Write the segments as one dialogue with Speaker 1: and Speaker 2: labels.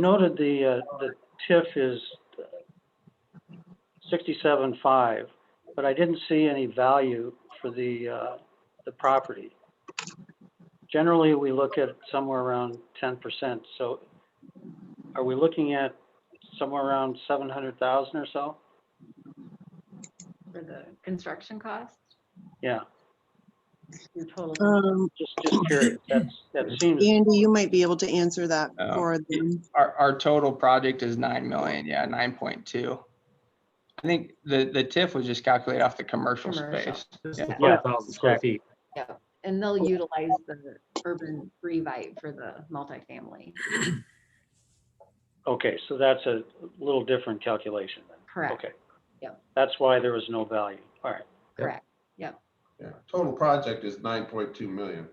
Speaker 1: noted the, uh, the TIF is sixty-seven five, but I didn't see any value for the, uh, the property. Generally, we look at somewhere around ten percent, so are we looking at somewhere around seven hundred thousand or so?
Speaker 2: for the construction cost?
Speaker 1: Yeah,
Speaker 2: Your total,
Speaker 3: Um,
Speaker 1: just, just curious, that's, that seems,
Speaker 3: Andy, you might be able to answer that
Speaker 4: Oh.
Speaker 3: for them.
Speaker 4: Our, our total project is nine million, yeah, nine point two. I think the, the TIF was just calculated off the commercial
Speaker 2: Commercial.
Speaker 4: space.
Speaker 5: This
Speaker 4: Yeah.
Speaker 5: is 12,000 square feet.
Speaker 2: and they'll utilize the urban revive for the multifamily,
Speaker 1: okay, so that's a little different calculation then.
Speaker 2: correct?
Speaker 1: Okay.
Speaker 2: Yep.
Speaker 1: That's why there was no value. All right.
Speaker 2: Correct.
Speaker 6: Yeah, total project is nine point two million.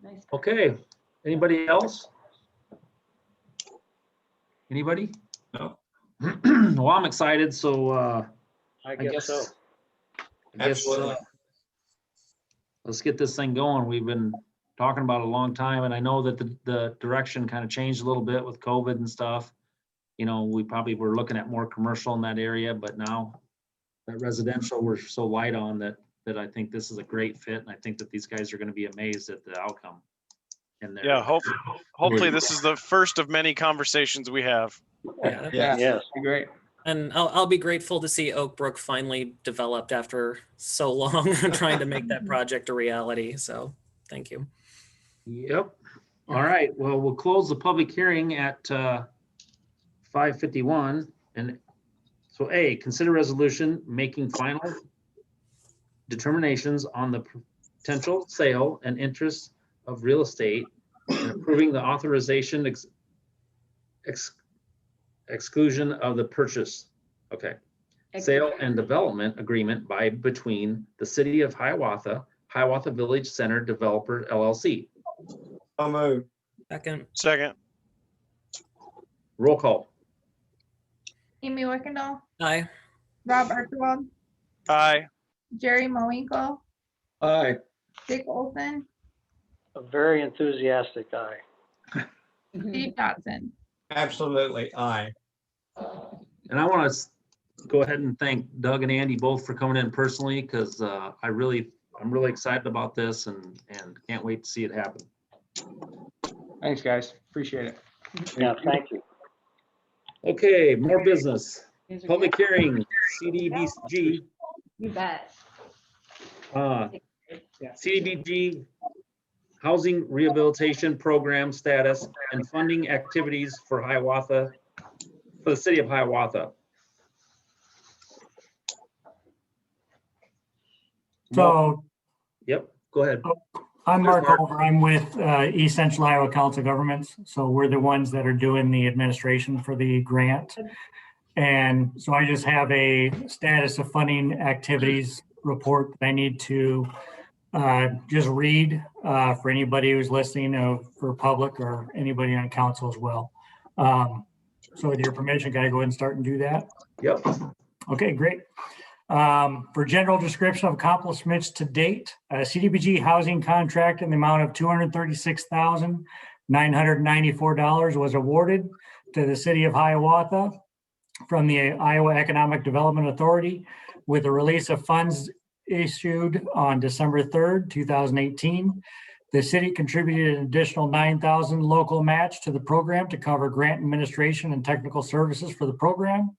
Speaker 2: Nice.
Speaker 5: Okay, anybody else? Anybody? No. Well, I'm excited, so uh,
Speaker 1: I
Speaker 5: I
Speaker 1: guess
Speaker 5: guess.
Speaker 1: so.
Speaker 5: I guess, uh,
Speaker 7: Absolutely.
Speaker 5: Let's get this thing going. We've been talking about it a long time, and I know that the, the direction kind of changed a little bit with COVID and stuff. You know, we probably were looking at more commercial in that area, but now that residential, we're so light on that, that I think this is a great fit, and I think that these guys are gonna be amazed at the outcome. And
Speaker 8: Yeah, hope, hopefully
Speaker 4: Wait.
Speaker 8: this is the first of many conversations we have.
Speaker 7: Yeah.
Speaker 4: Yeah,
Speaker 1: Yes.
Speaker 4: great.
Speaker 7: And I'll, I'll be grateful to see Oak Brook finally developed after so long trying to make that project a reality. So thank you.
Speaker 5: Yep. All right. Well, we'll close the public hearing at uh, 5:51. And so A, consider resolution making final determinations on the potential sale and interest of real estate and approving the authorization ex- ex- exclusion of the purchase. Okay sale and development agreement by between the city of Hiawatha, Hiawatha Village Center Developer LLC.
Speaker 7: I'll move. Second,
Speaker 8: Second,
Speaker 5: Roll call.
Speaker 9: Amy Wickendall,
Speaker 7: aye.
Speaker 9: Rob Archibald,
Speaker 8: aye,
Speaker 9: Jerry Moinkle,
Speaker 4: Aye.
Speaker 9: Dick Olson,
Speaker 1: A very enthusiastic guy.
Speaker 2: Mhm.
Speaker 9: Steve Dodson.
Speaker 7: Absolutely, aye.
Speaker 5: And I want to go ahead and thank Doug and Andy both for coming in personally because I really, I'm really excited about this and, and can't wait to see it happen.
Speaker 4: Thanks, guys. Appreciate it.
Speaker 1: Yeah, thank you.
Speaker 5: Okay, more business.
Speaker 2: These are
Speaker 5: Public
Speaker 2: good.
Speaker 5: hearing, CDBG,
Speaker 2: You bet.
Speaker 5: uh, CDBG Housing Rehabilitation Program status and funding activities for Hiawatha, for the city of Hiawatha.
Speaker 10: So
Speaker 5: Yep, go ahead.
Speaker 10: I'm
Speaker 5: There's
Speaker 10: Mark
Speaker 5: Mark.
Speaker 10: Over. I'm with uh, East Central Iowa Council of Governments. So we're the ones that are doing the administration for the grant. And so I just have a status of funding activities report that I need to uh, just read uh, for anybody who's listening uh, for public or anybody on council as well. Um, So with your permission, can I go ahead and start and do that?
Speaker 5: Yep.
Speaker 10: Okay, great. Um, For general description of accomplishments to date, a CDBG housing contract in the amount of $236,994 was awarded to the city of Hiawatha from the Iowa Economic Development Authority with the release of funds issued on December 3rd, 2018. The city contributed an additional 9,000 local match to the program to cover grant administration and technical services for the program.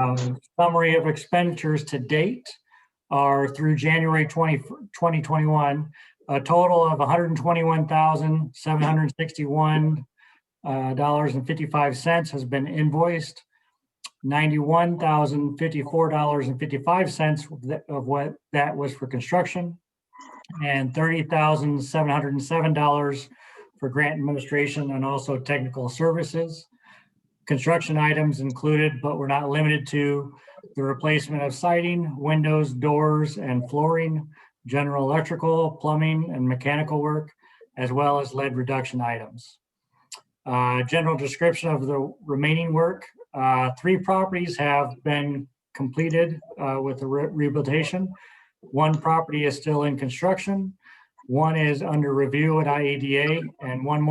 Speaker 10: Um, Summary of expenditures to date are through January 20 2021, a total of $121,761 uh, dollars and 55 cents has been invoiced. $91,054.55 of that- of what that was for construction and $30,707 for grant administration and also technical services. Construction items included, but we're not limited to the replacement of siding, windows, doors, and flooring, general electrical, plumbing, and mechanical work, as well as lead reduction items. Uh, General description of the remaining work. uh, Three properties have been completed uh, with the re- rehabilitation. One property is still in construction. One is under review at IEDA and one more